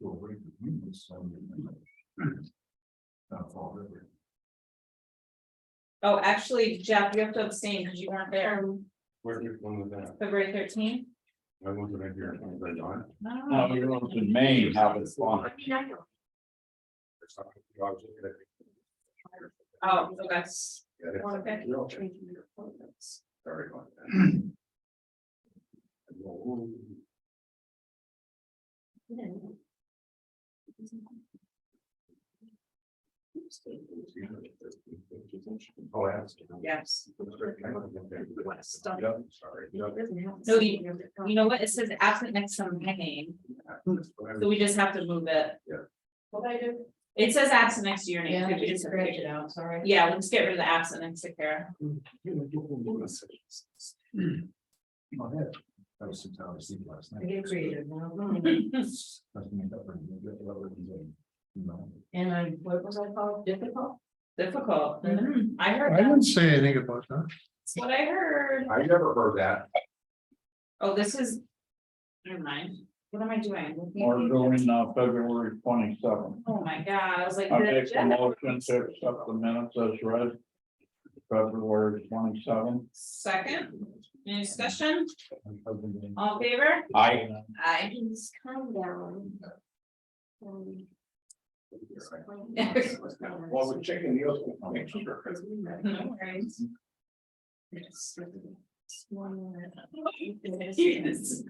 You'll read the humans, so you can- That's all really. Oh, actually, Jeff, you have to abstain because you weren't there, Where did one of that? February thirteenth. I wasn't in here, I was like, on. No, you're on to Maine, how it's on. It's not- I was looking at it. oh, okay. Yeah, it's- Okay. Real change in your appointments. Sorry about that. Well, Oh, ask. yes. Yeah, sorry. No, you, you know what, it says absent next to my name, so we just have to move it. What I do? It says absent next to your name. Yeah, I could we just just- scratched it out, sorry. Yeah, let's get rid of the absent and take care. Oh, yeah. That was six hours sleep last I night. get creative now. That's me, that was- that was- you know. And I, what was I called, difficult? Difficult. Mhm. I heard I that. didn't say anything about that. That's what I heard. I never heard that. Oh, this is. Never mind. What am I doing? Or going uh February twenty seventh. Oh, my God. I was like. I the make a Jeff- motion to accept the minutes as read. February twenty seventh. Second, any discussion? All in favor? I. uh, Aye. Please calm down. Um, Well, we're checking the oath. I'll make sure. No Hmm. worries.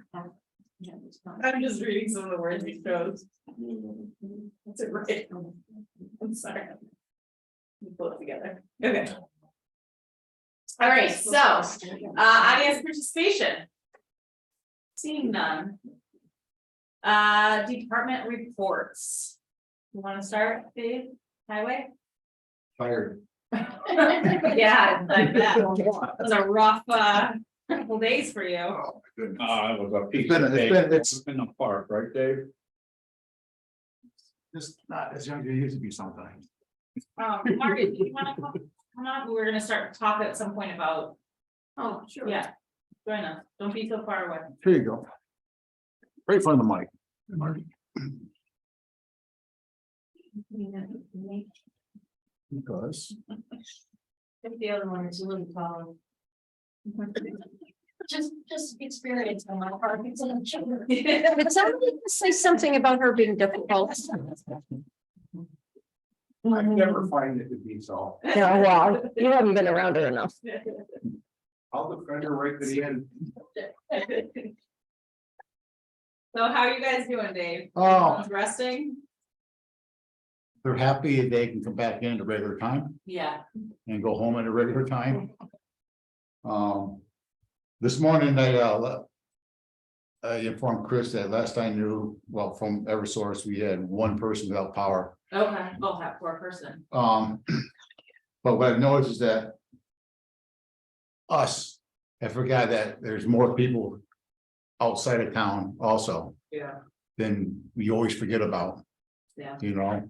I'm just reading some of the words we chose. That's it, right? I'm sorry. We Pull it together. Okay. All right, so, uh, audience participation. Seeing none. Uh, department reports. You wanna start, Dave? Highway? Fired. Yeah, like that. Those are rough, uh, couple days for you. Uh, I was a piece It's been- of it's cake. been- it's- in the park, right, Dave? Just not as young as you used to be sometimes. Um, Margaret, do you wanna come, come on, we're gonna start talk at some point about, Oh, sure. yeah. Join us, don't be so far away. Here you go. Right in front of the mic. Marty. Because. I think the other one is a little tall. just, just experience on my part, it's in a children. But somebody say something about her being difficult. I never find it to be so. Yeah, well, you haven't been around her enough. I'll defend her right to the end. So how are you guys doing, Dave? Oh, Everyone's Resting? they're happy they can come back in at a regular time Yeah. and go home at a regular time. Um, this morning I, uh, le- I informed Chris that last I knew, well, from Eversource, we had one person without power. Okay, oh, that poor person. Um, but what I've noticed is that. Us, I forgot that there's more people outside of town also Yeah. than we always forget about. Yeah. You know,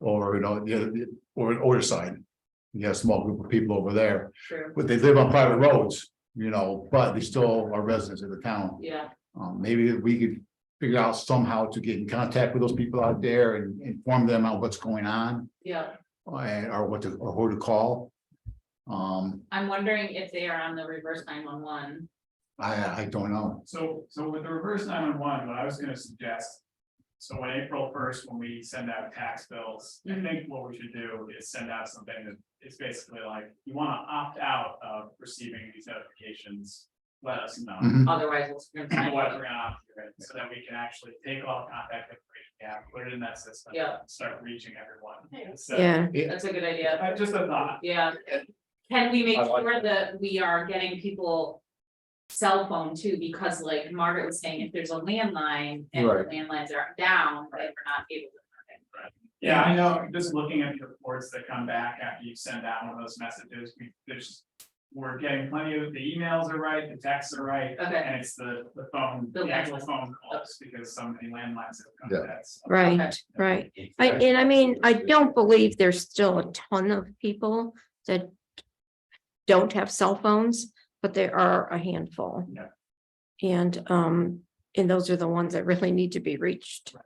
or, you know, the other, or in order side, you got a small group of people over there, True, but they live on private roads, you know, but they still are residents of the town. yeah, Um, maybe we could figure out somehow to get in contact with those people out there and inform them on what's going on yeah. and- or what to, or who to call. Um, I'm wondering if they are on the reverse nine one one. I, I don't know. So, so with the reverse nine one one, what I was gonna suggest. So on April first, when we send out tax bills, I Mm-hmm. think what we should do is send out something that is basically like, you wanna opt out of receiving these notifications. Let us know. Mhm. otherwise it's. gonna And what be- we're gonna opt you in, so that we can actually take all contact information, we have, put it in that system. Yeah. and Start reaching everyone. So, That's a good idea, I just a thought. yeah. Can we make I like sure that we are getting people cell phone too, because like Margaret was saying, if there's a landline and the Right. landlines are down, like we're not able to. Yeah, I know, just looking at the reports that come back after you send out one of those messages, we, there's. We're getting plenty of, the emails are right, the texts are right, Okay, and it's the, the phone, Uh, The the actual landline. phone calls, because so many landlines have come Yeah. to that. so. Okay. Right, right. I, and I mean, I don't believe there's still a ton of people that don't have cell phones, but there are a handful. Yeah. And, um, and those are the ones that really need to be reached.